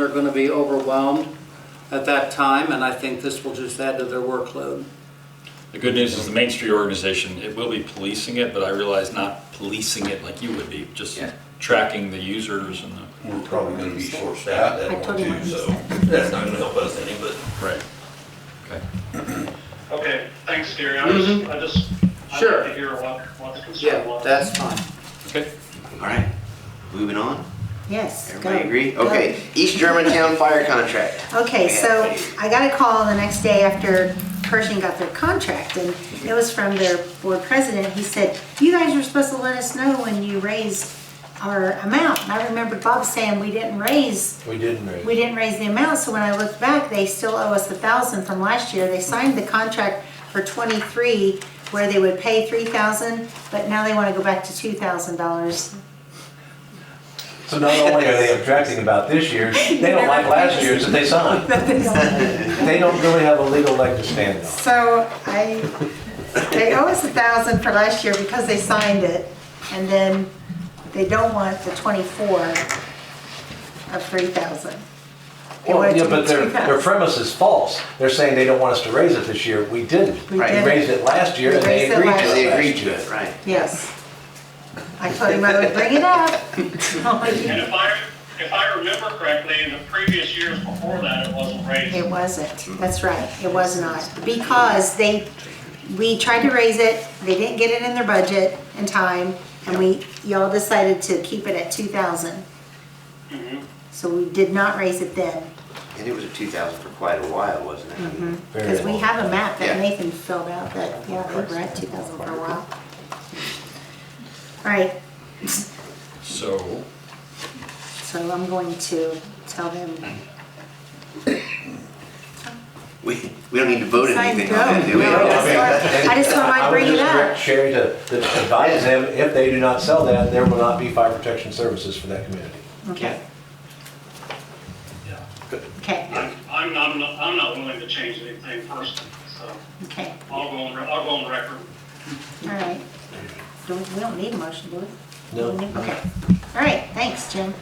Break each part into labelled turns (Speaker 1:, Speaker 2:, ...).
Speaker 1: are going to be overwhelmed at that time, and I think this will just add to their workload.
Speaker 2: The good news is the Main Street organization, it will be policing it, but I realize not policing it like you would be, just
Speaker 3: Yeah.
Speaker 2: tracking the users and the,
Speaker 4: We're probably gonna be short staffed
Speaker 5: I
Speaker 4: that one
Speaker 5: totally
Speaker 4: too, so that's not gonna help us any, but
Speaker 2: right. Okay.
Speaker 6: Okay, thanks, Gary. I just, I just, I'd
Speaker 1: Mm-hmm. Sure.
Speaker 6: like to hear what, what the concern
Speaker 1: Yeah,
Speaker 6: was.
Speaker 1: that's fine.
Speaker 2: Okay.
Speaker 3: All right, moving on.
Speaker 5: Yes. go.
Speaker 3: Everybody agree?
Speaker 5: Go.
Speaker 3: Okay, East Germantown fire contract.
Speaker 5: Okay,
Speaker 3: Yeah.
Speaker 5: so I got a call the next day after Pershing got their contract, and it was from their board president. He said, you guys were supposed to let us know when you raised our amount. And I remembered Bob saying we didn't raise,
Speaker 7: We didn't raise.
Speaker 5: we didn't raise the amount, so when I looked back, they still owe us the thousand from last year. They signed the contract for twenty-three where they would pay three thousand, but now they wanna go back to two thousand dollars.
Speaker 7: So not only are they objecting about this year, they don't like last year's that they signed. They don't really have a legal leg to stand on.
Speaker 5: So I, they owe us a thousand for last year because they signed it, and then they don't want the twenty-four of three thousand. They want
Speaker 7: Well,
Speaker 5: it to
Speaker 7: yeah, but
Speaker 5: be
Speaker 7: their, their
Speaker 5: 2,000.
Speaker 7: premise is false. They're saying they don't want us to raise it this year. We didn't.
Speaker 5: We
Speaker 7: We
Speaker 5: didn't.
Speaker 7: raised it last year
Speaker 5: We
Speaker 7: and they
Speaker 5: raised it
Speaker 7: agreed to
Speaker 5: last
Speaker 7: it.
Speaker 3: And they
Speaker 7: last
Speaker 3: agreed
Speaker 7: year.
Speaker 3: to it, right.
Speaker 5: Yes. I told him I would bring it up.
Speaker 6: And if I, if I remember correctly, in the previous years before that, it wasn't raised.
Speaker 5: It wasn't, that's right, it was not, because they, we tried to raise it, they didn't get it in their budget in time, and we, y'all decided to keep it at two thousand.
Speaker 6: Mhm.
Speaker 5: So we did not raise it then.
Speaker 3: And it was at two thousand for quite a while, wasn't it? I mean,
Speaker 7: Very
Speaker 5: Because we
Speaker 7: well.
Speaker 5: have a map that
Speaker 3: Yeah.
Speaker 5: Nathan filled out that, yeah, we were at two thousand for a while. All right,
Speaker 2: So,
Speaker 5: so I'm going to tell them,
Speaker 3: We, we don't need to vote
Speaker 5: Sign
Speaker 3: anything
Speaker 5: go.
Speaker 3: on that, do we?
Speaker 5: No, that's I just thought I'd
Speaker 7: would
Speaker 5: bring it
Speaker 7: just
Speaker 5: up.
Speaker 7: direct Sherry to to advise them, if they do not sell that, there will not be fire protection services for that community.
Speaker 5: okay,
Speaker 2: yeah.
Speaker 5: okay,
Speaker 6: I'm, I'm not, I'm not willing to change anything personally, so
Speaker 5: okay,
Speaker 6: I'll go on, re- I'll go on record.
Speaker 5: all right. Don't, we don't need a motion, do we?
Speaker 7: No.
Speaker 5: Okay, all right, thanks, Jim.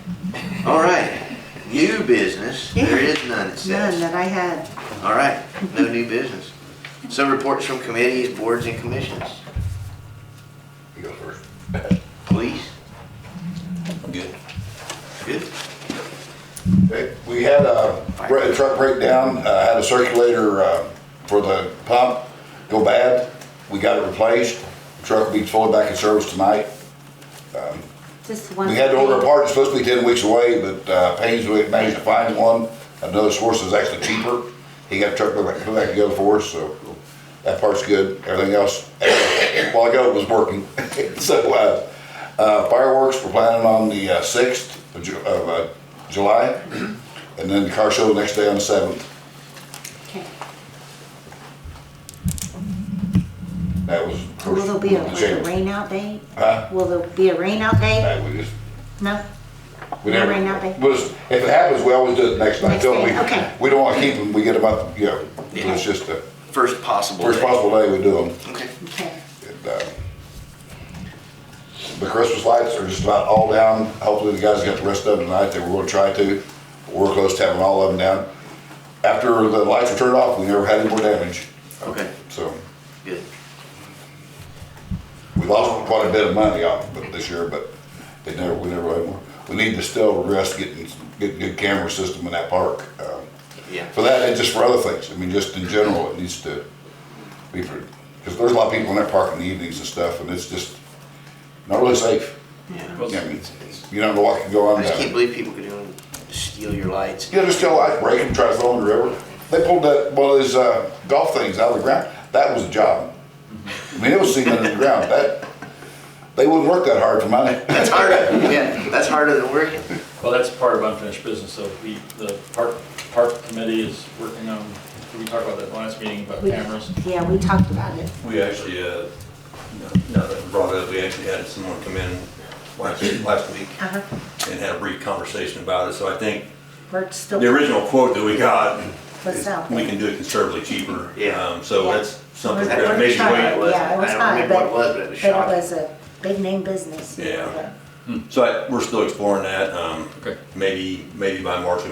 Speaker 3: All right, new business, there
Speaker 5: Yeah.
Speaker 3: is none, it
Speaker 5: None
Speaker 3: says.
Speaker 5: that I had.
Speaker 3: All right, no new business. So reports from committees, boards and commissions,
Speaker 4: you go first.
Speaker 3: please,
Speaker 4: I'm good.
Speaker 3: good.
Speaker 8: Okay, We had a bre- truck breakdown, uh, had a circulator uh, for the pump go bad. We got it replaced. Truck will be fully back in service tonight.
Speaker 5: Just one.
Speaker 8: We had to order a part, it's supposed to be 10 weeks away, but uh, Payne's we managed to find one. Another source is actually cheaper. He got the truck put back- put back together for us, so that part's good. Everything else, while I got it was working. So uh, uh, fireworks, we're planning on the uh, 6th of Ju- of uh, July, and then the car show the next day on the 7th.
Speaker 5: Okay.
Speaker 8: That was. of course,
Speaker 5: Will there be a,
Speaker 8: the
Speaker 5: like a
Speaker 8: change.
Speaker 5: rain out day?
Speaker 8: Huh?
Speaker 5: Will there be a rain out day?
Speaker 8: Uh, We just
Speaker 5: No?
Speaker 8: We
Speaker 5: No
Speaker 8: never,
Speaker 5: rain out there?
Speaker 8: well, it's- if it happens, we always do it the next night,
Speaker 5: Next
Speaker 8: don't we?
Speaker 5: day, okay.
Speaker 8: We don't wanna keep them, we get them out, you know,
Speaker 3: Yeah.
Speaker 8: it's just the
Speaker 3: First possible.
Speaker 8: first
Speaker 3: day.
Speaker 8: possible day we do them.
Speaker 3: Okay.
Speaker 5: Okay,
Speaker 8: And, uh, The Christmas lights are just about all down, hopefully the guys got the rest of them tonight, they were gonna try to, we're close to having all of them down. After the lights were turned off, we never had any more damage,
Speaker 3: Okay,
Speaker 8: so
Speaker 3: good.
Speaker 8: we lost quite a bit of money off of it this year, but it never, we never had more. We need to still rest getting, getting good camera system in that park. um,
Speaker 3: Yeah.
Speaker 8: For that, and just for other things, I mean, just in general, it needs to be, because there's a lot of people in that park in the evenings and stuff, and it's just not really safe.
Speaker 3: Yeah.
Speaker 8: I mean, You don't know what can go on
Speaker 3: I just can't
Speaker 8: down.
Speaker 3: believe people could do it, steal your lights.
Speaker 8: You know, just tell light break and try to throw them in the river. They pulled that, one of those uh, golf things out of the ground, that was a job. I mean, it was sitting under the ground, that, they wouldn't work that hard for money.
Speaker 3: That's harder, yeah, that's harder than working.
Speaker 2: Well, that's part of unfinished business, so we, the park, park committee is working on, um, we talked about that last meeting about
Speaker 5: We-
Speaker 2: cameras.
Speaker 5: yeah, we talked about it.
Speaker 4: We actually, uh, now that I brought it up, we actually had someone come in last, last week
Speaker 5: Uh-huh.
Speaker 4: and had a brief conversation about it, so I think
Speaker 5: We're still.
Speaker 4: the original quote that we got,
Speaker 5: What's
Speaker 4: is
Speaker 5: out
Speaker 4: we
Speaker 5: there?
Speaker 4: can do it considerably cheaper.
Speaker 3: Yeah.
Speaker 4: Um, So
Speaker 5: Yeah.
Speaker 4: that's something
Speaker 5: We're-
Speaker 4: we're gonna
Speaker 5: we're
Speaker 4: maybe
Speaker 5: trying.
Speaker 4: wait.
Speaker 3: it was.
Speaker 5: Yeah, it was
Speaker 3: I don't
Speaker 5: high,
Speaker 3: remember what it
Speaker 5: but-
Speaker 3: was, but it was
Speaker 5: But
Speaker 3: shocking.
Speaker 5: it was a big name business.
Speaker 4: Yeah. So I- we're still exploring that. um,
Speaker 2: Okay.
Speaker 4: Maybe, maybe by March,